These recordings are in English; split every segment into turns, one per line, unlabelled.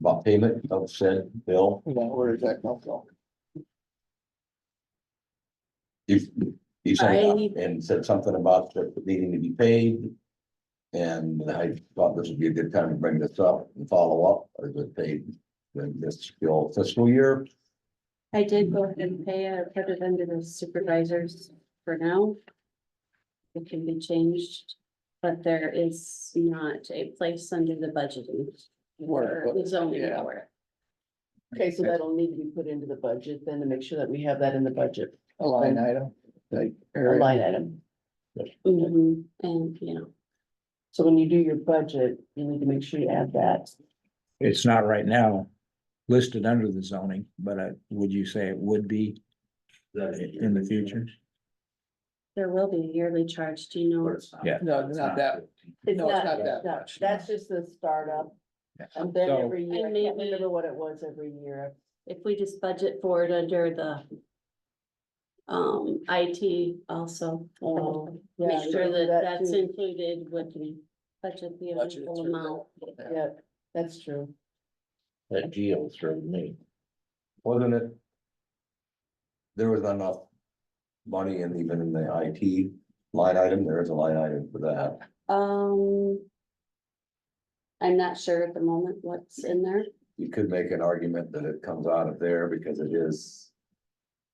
about payment of said bill.
Yeah, where is that come from?
He, he sent,
I-
and said something about it needing to be paid. And I thought this would be a good time to bring this up and follow up, or is it paid in this bill fiscal year?
I did go ahead and pay it, I put it under the supervisors for now. It can be changed, but there is not a place under the budgeting
Word,
or the zoning
Yeah.
for it.
okay, so that'll need to be put into the budget then to make sure that we have that in the budget,
A line item, like.
a
area.
line item.
Mhm, And, you know,
So when you do your budget, you need to make sure you add that.
It's not right now listed under the zoning, but uh, would you say it would be in the future?
there will be a yearly charge, do you know?
Yeah.
No, not that,
It's
No, it's
not,
not that
no,
much.
that's just the startup.
Yeah.
And then
So-
every year, I
And
can't
maybe-
remember what it was every year.
If we just budget for it under the um, IT also,
Oh, yeah,
make sure
you do
that that's
too.
included with the budget, the
Budget
eligible
through
amount.
that.
Yeah, that's true.
That deal through me. Wasn't it? There was enough money and even in the IT line item, there is a line item for that.
Um. I'm not sure at the moment what's in there.
You could make an argument that it comes out of there because it is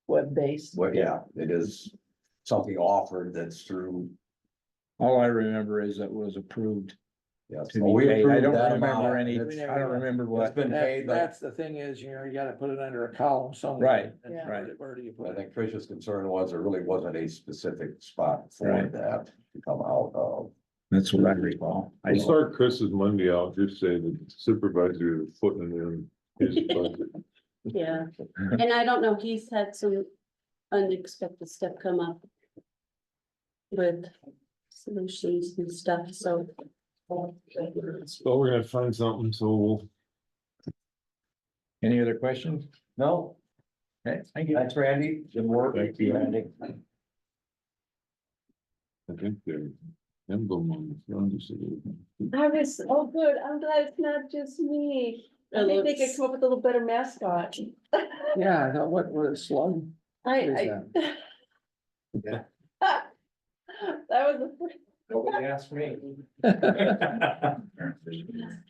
Web-based.
Well, yeah, it is something offered that's through,
All I remember is it was approved
yeah.
to
well,
be
we
paid. I
approved
don't
that
remember
amount,
any,
and it's-
I don't remember
It's
what.
been
That-
paid, but
That's the thing is, you know, you gotta put it under a column somewhere.
Right,
And
Yeah.
where
right.
do- Where do you
I
put it?
think Trish's concern was there really wasn't a specific spot for
Right.
that to come out of.
That's what I recall. I
I'll
don't-
start Chris's Monday out, just saying that supervisor is putting in his budget.
Yeah. And I don't know, he's had some unexpected stuff come up. With solutions and stuff, so.
So we're gonna find something, so we'll.
Any other questions?
No,
Okay, thank you.
that's Randy, good work.
Thank you.
Randy.
I think they're emblem on the front is a-
I was, oh, good, I'm glad it's not just me.
I think they could come
up with a little better mascot.
Yeah, I thought, what, what a slug.
I, I.
Yeah.
That was the first.
Nobody asked me.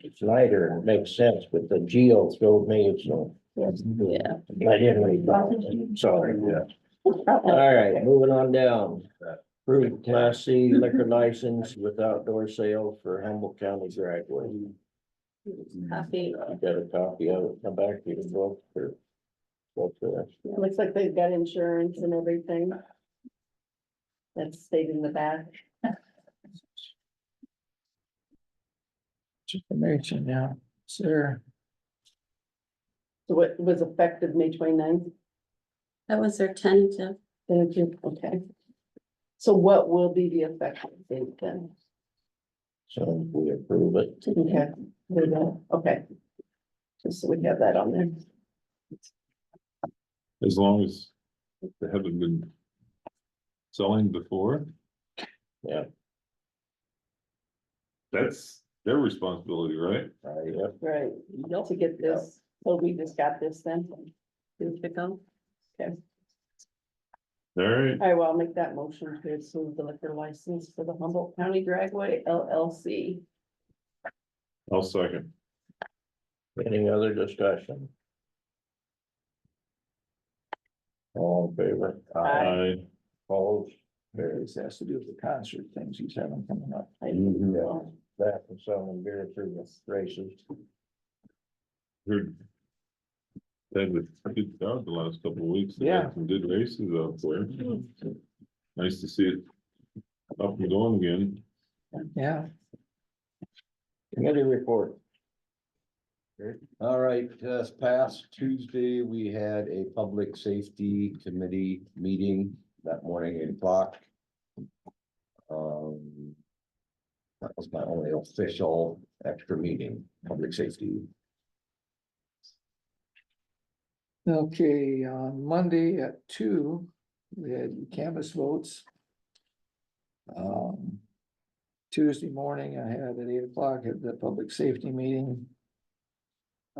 It's lighter and it makes sense, but the geo throwed me, it's no.
Yeah.
I didn't really follow it, sorry.
Oh,
All right, moving on down. Approved class C liquor license with outdoor sale for Humboldt County Dragway.
Happy,
I got a copy of it, come back to the book for. what's the-
It Looks like they've got insurance and everything. That's stayed in the back.
Information now, sir.
So what was effective May 29th.
that was their tentative.
Thank you. Okay. So what will be the effective date then?
So if we approve it.
Okay, there you go. Okay. Just so we have that on there.
As long as they haven't been selling before.
Yeah.
That's their responsibility, right?
Uh, yep.
Right, to get this, so we just got this then.
Two to go.
All right,
All right, well, I'll make that motion to approve the liquor license for the Humboldt County Dragway LLC.
I'll second.
Any other discussion? All in favor?
I,
Opposed?
This has to do with the concert things he's having coming up.
Yeah, That and selling beer through the races.
heard. Had a good crowd the last couple of weeks. They had
Yeah.
Some good races out there. Nice to see it up and going again.
Yeah.
Committee report.
All right, uh, this past Tuesday, we had a public safety committee meeting that morning at eight o'clock. Um. That was my only official extra meeting, public safety.
Okay, on Monday at two, we had canvas votes. Um, Tuesday morning, I had at eight o'clock at the public safety meeting.